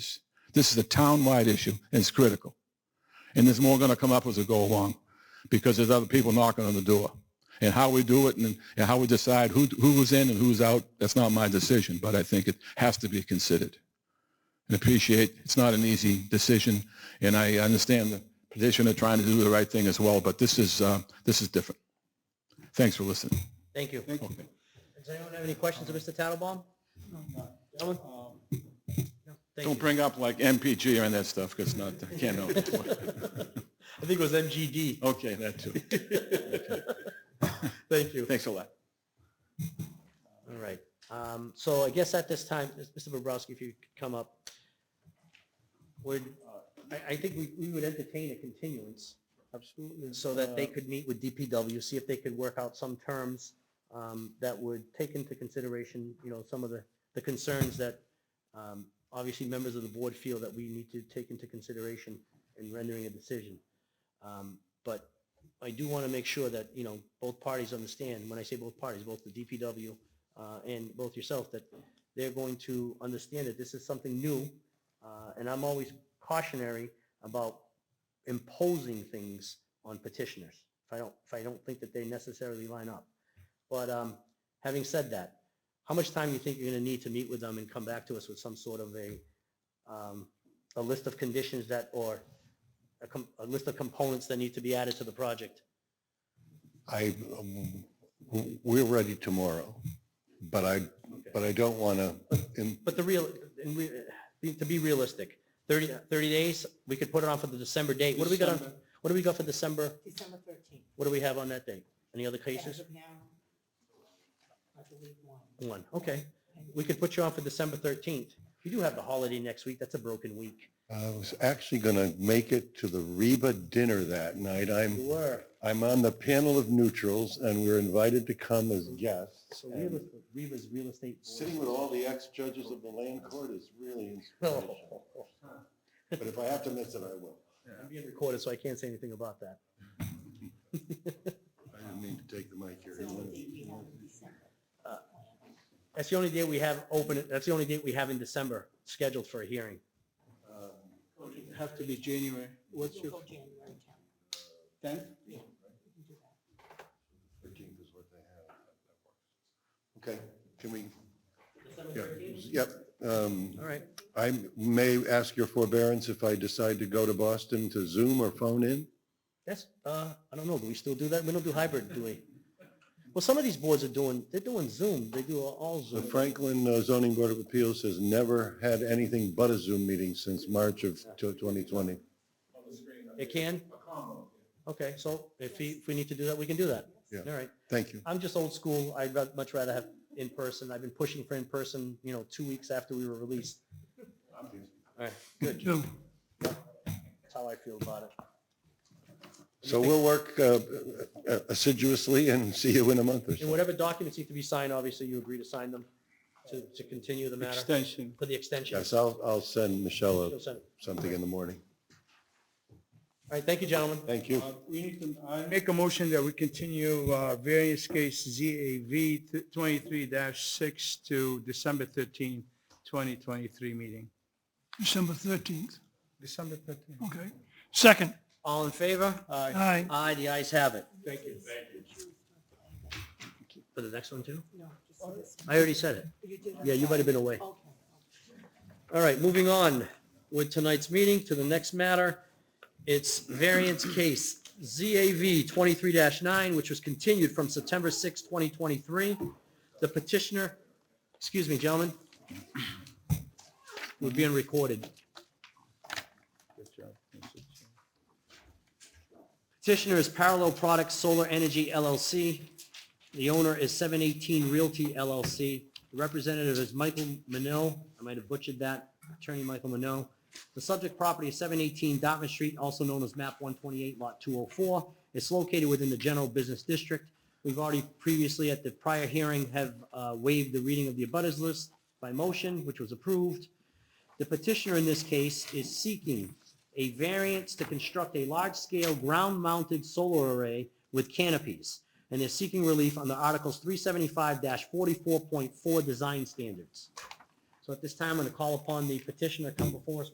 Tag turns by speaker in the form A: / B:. A: This is a town-wide issue, and it's critical. And there's more going to come up as we go along, because there's other people knocking on the door. And how we do it and, and how we decide who, who was in and who's out, that's not my decision, but I think it has to be considered. And appreciate, it's not an easy decision, and I understand the petitioner trying to do the right thing as well, but this is, uh, this is different. Thanks for listening.
B: Thank you.
C: Thank you.
B: Does anyone have any questions of Mr. Tattelbaum? No. No?
A: Don't
B: Thank you.
A: bring up like MPG or any of that stuff, because not, I can't know.
B: I think it was MGD.
A: Okay, that too.
B: Thank you.
A: Thanks a lot.
B: All right. Um, So I guess at this time, Mr. Bobrowski, if you could come up, would, I, I think we, we would entertain a continuance. Absolutely. So that they could meet with DPW, see if they could work out some terms um, that would take into consideration, you know, some of the, the concerns that um, obviously members of the board feel that we need to take into consideration in rendering a decision. Um, But I do want to make sure that, you know, both parties understand, when I say both parties, both the DPW uh, and both yourself, that they're going to understand that this is something new. uh, And I'm always cautionary about imposing things on petitioners if I don't, if I don't think that they necessarily line up. But um, having said that, how much time do you think you're going to need to meet with them and come back to us with some sort of a, um, a list of conditions that, or a com- a list of components that need to be added to the project?
C: I, um, w- we're ready tomorrow, but I, but I don't want to,
B: But the real, in re- to be realistic, 30, 30 days, we could put it on for the December date. What do we got on, what do we got for December?
D: December thirteenth.
B: What do we have on that date? Any other
D: As
B: cases?
D: of now, I believe one.
B: One, okay. We could put you on for December 13th. We do have the holiday next week. That's a broken week.
C: I was actually going to make it to the Reba dinner that night.
B: You
C: I'm,
B: were.
C: I'm on the panel of neutrals and we're invited to come as guests.
B: So real- Reva's real estate. board.
C: Sitting with all the ex-judges of the land court is really inspirational.
B: Oh,
C: But if I have to miss it, I will.
B: I'm being recorded, so I can't say anything about that.
C: I didn't mean to take the mic here.
D: It's the only date we have in December.
B: That's the only day we have open, that's the only date we have in December scheduled for a hearing.
C: Um,
E: Have to be January. What's
D: You'll
E: your
D: go January tenth.
E: tenth?
D: You can do that.
C: Thirteenth is what they have. Okay, can we,
B: December
C: yeah, yep. um,
B: All right,
C: I may ask your forbearance if I decide to go to Boston to Zoom or phone in?
B: that's, uh, I don't know, do we still do that? We don't do hybrid, do we? Well, some of these boards are doing, they're doing Zoom, they do all
C: The
B: Zoom.
C: Franklin uh, Zoning Board of Appeals has never had anything but a Zoom meeting since March of tw- 2020.
B: It can? Okay, so if we, if we need to do that, we can do that.
C: Yeah.
B: All right.
C: Thank you.
B: I'm just old school. I'd ra- much rather have in person. I've been pushing for in person, you know, two weeks after we were released. All right, good. That's how I feel about it.
C: So we'll work uh, uh, assiduously and see you in a month or
B: And
C: so.
B: whatever documents need to be signed, obviously you agree to sign them to, to continue the matter
E: Extension.
B: for the extension.
C: Yes, I'll, I'll send Michelle
B: You'll
C: a-
B: send it.
C: something in the morning.
B: All right, thank you, gentlemen.
C: Thank you.
E: Uh, We need to, I make a motion that we continue uh, variance case ZAV twenty-three six to December 13, twenty twenty-three meeting.
F: December 13th.
E: December thirteen.
F: Okay. Second.
B: All in favor? Aye.
F: Aye.
B: Aye, the ayes have it.
E: Thank you.
B: For the next one too?
D: No, just this one.
B: I already said it.
D: You did it.
B: Yeah, you might have been away.
D: Okay.
B: All right, moving on with tonight's meeting to the next matter. It's variance case ZAV 23-9, which was continued from September 6, 2023. The petitioner, excuse me, gentlemen, we're being recorded. Petitioner is Parallel Products Solar Energy LLC. The owner is 718 Realty LLC. The representative is Michael Manil. I might have butchered that, Attorney Michael Manil. The subject property is 718 Dartmouth Street, also known as MAP 128, Lot 204. It's located within the general business district. We've already previously, at the prior hearing, have uh, waived the reading of the abutters list by motion, which was approved. The petitioner in this case is seeking a variance to construct a large-scale ground-mounted solar array with canopies, and they're seeking relief under Articles 375-44.4 Design Standards. So at this time, I'm going to call upon the petitioner to come before us